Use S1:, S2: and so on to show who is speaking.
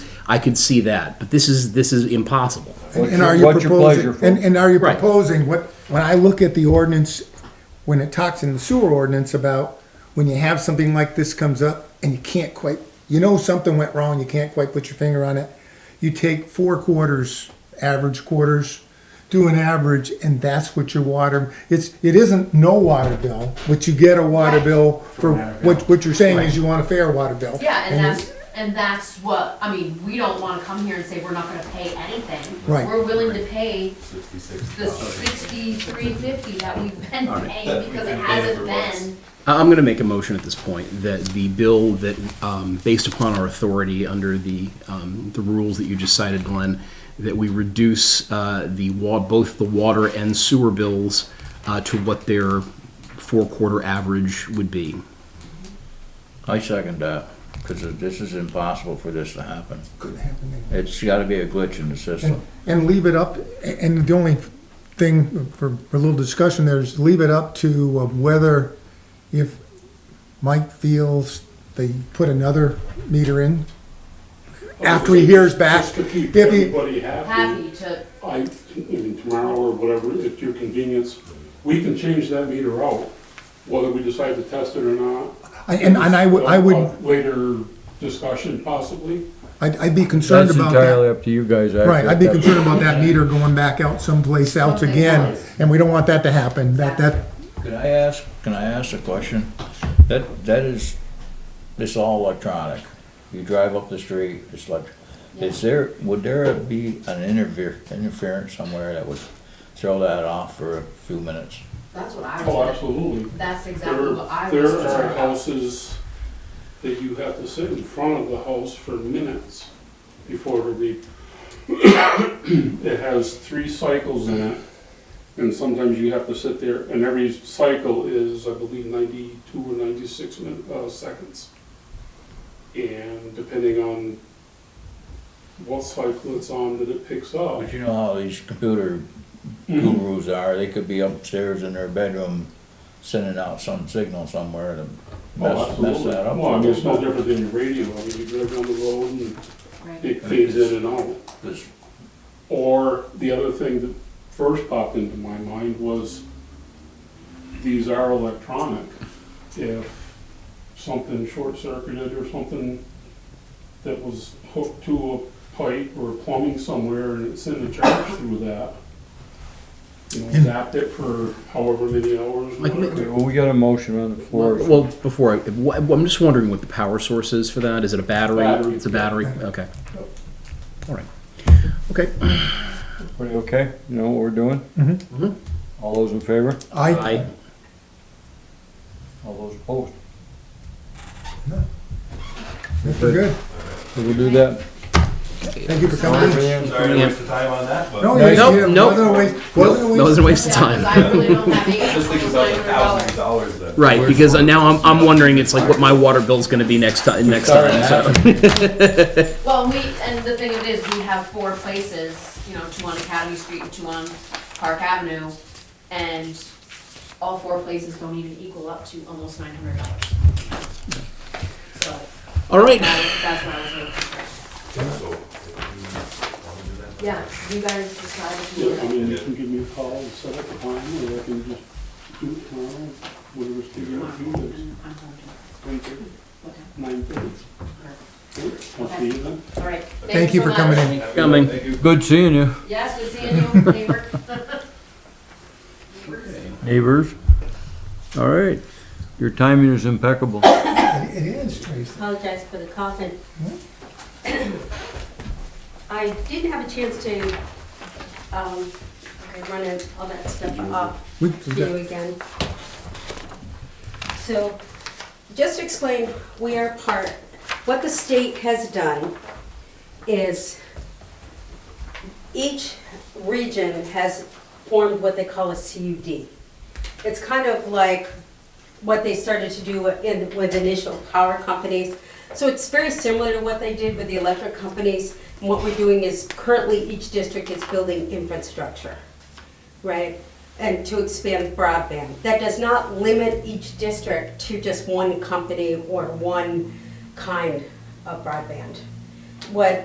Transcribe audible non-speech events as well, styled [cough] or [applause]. S1: I could see that, but this is, this is impossible.
S2: What's
S3: And
S2: your-
S3: are you
S2: what's your
S3: proposing,
S2: pleasure,
S3: and,
S2: folks?
S3: and are you
S1: Right.
S3: proposing, what, when I look at the ordinance, when it talks in the sewer ordinance about when you have something like this comes up and you can't quite, you know something went wrong, you can't quite put your finger on it, you take four quarters, average quarters, do an average, and that's what your water, it's, it isn't no water bill, but you get a water bill for, what, what you're saying is you want a fair water bill.
S4: Yeah, and
S3: you-
S4: that's, and that's what, I mean, we don't wanna come here and say we're not gonna pay anything.
S3: Right.
S4: We're willing to pay the sixty-three fifty that we've been paying because it hasn't been.
S1: I- I'm going to make a motion at this point that the bill that, um, based upon our authority under the, um, the rules that you just cited, Glenn, that we reduce uh, the wa, both the water and sewer bills uh, to what their four-quarter average would be.
S2: I second that, because this is impossible for this to happen.
S3: Couldn't happen anyway.
S2: It's gotta be a glitch in the system.
S3: And leave it up, and the only thing for for a little discussion there is leave it up to uh, whether if Mike feels they put another meter in after he hears back.
S5: Just to keep
S3: If he-
S5: everybody happy,
S4: Happy to,
S5: I, even tomorrow or whatever, at your convenience, we can change that meter out, whether we decide to test it or not.
S3: I- And, and I would, I would,
S5: Later discussion possibly.
S3: I'd I'd be concerned about that.
S2: up to you guys. I
S3: Right, I'd be
S2: think.
S3: concerned about that meter going back out someplace else
S4: Someplace
S3: again,
S4: else.
S3: and we don't want that to happen. That, that,
S2: Can I ask, can I ask a question? That, that is, it's all electronic. You drive up the street, it's like, is there, would there be an interfere, interference somewhere that would throw that off for a few minutes?
S4: that's what I
S5: Oh,
S4: was,
S5: absolutely.
S4: that's exactly
S5: There,
S4: what I
S5: there
S4: was.
S5: are
S4: concerned about.
S5: houses that you have to sit in front of the house for minutes before the, [coughs] it has three cycles in it. And sometimes you have to sit there, and every cycle is, I believe, ninety-two or ninety-six min, uh, seconds. And depending on what cycle it's on that it picks up.
S2: But you know how these computer
S5: Mm-hmm.
S2: gurus are, they could be upstairs in their bedroom sending out some signal somewhere to
S5: Oh,
S2: mess, mess
S5: absolutely.
S2: that up.
S5: Well, I mean, it's no different than your radio, I mean, you drive down the road and
S4: Right.
S5: it fades in and out.
S2: This-
S5: Or the other thing that first popped into my mind was, these are electronic. If something short-circuited or something that was hooked to a pipe or plumbing somewhere and it sent a charge through that, you know, zapped it for however many hours.
S1: Like,
S5: whatever.
S6: Well, we got a motion on the floor. so-
S1: Well, before, I- wh- I'm just wondering what the power source is for that. Is it a battery?
S5: Battery.
S1: It's a battery, okay. All right. Okay.
S6: Are you okay? You know what we're doing? Mm-hmm.
S3: Mhm.
S1: Mhm.
S6: All those in favor?
S3: I,
S1: I,
S6: All those opposed?
S3: we're good.
S6: So we'll do that.
S3: Thank you for coming. in.
S7: Sorry to waste the time on that, but
S3: No,
S1: Nice.
S3: you- you-
S1: Nope,
S3: wasn't a waste- wasn't a
S1: nope, that was a waste of
S4: Yeah,
S1: time.
S4: 'cause I really don't have eight
S7: just think
S4: hundred
S7: about the thousands
S4: dollars.
S7: of dollars that.
S1: Right, because now I'm, I'm wondering, it's like what my water bill's gonna be next time, next time, so.
S4: Well, we, and the thing of it is, we have four places, you know, two on Academy Street and two on Park Avenue, and all four places don't even equal up to almost nine hundred dollars. So,
S1: All right,
S4: that- that's what I was looking for. Yeah, you guys decide if you
S5: Yeah, I
S4: want
S5: mean, you can give me a call and set up a time, or I can just do it tomorrow, whatever's figured out, do this,
S4: I'm I'm going
S5: one thirty,
S4: to,
S5: nine thirty. I'll see you then.
S4: okay, all right.
S3: Thank you for
S4: so
S3: coming
S4: much.
S3: in.
S1: coming.
S7: Thank you.
S6: Good seeing you.
S4: Yes, good seeing you, neighbor.
S6: Neighbors. All right. Your timing is impeccable.
S3: It is, Tracy.
S8: apologize for the coughing. [coughs] I did have a chance to, um, I run it- all that stuff off
S3: We-
S8: to you again. So, just to explain, we are part, what the state has done is each region has formed what they call a CUD. It's kind of like what they started to do in, with initial power companies. So it's very similar to what they did with the electric companies. And what we're doing is currently each district is building infrastructure, right? And to expand broadband. That does not limit each district to just one company or one kind of broadband. What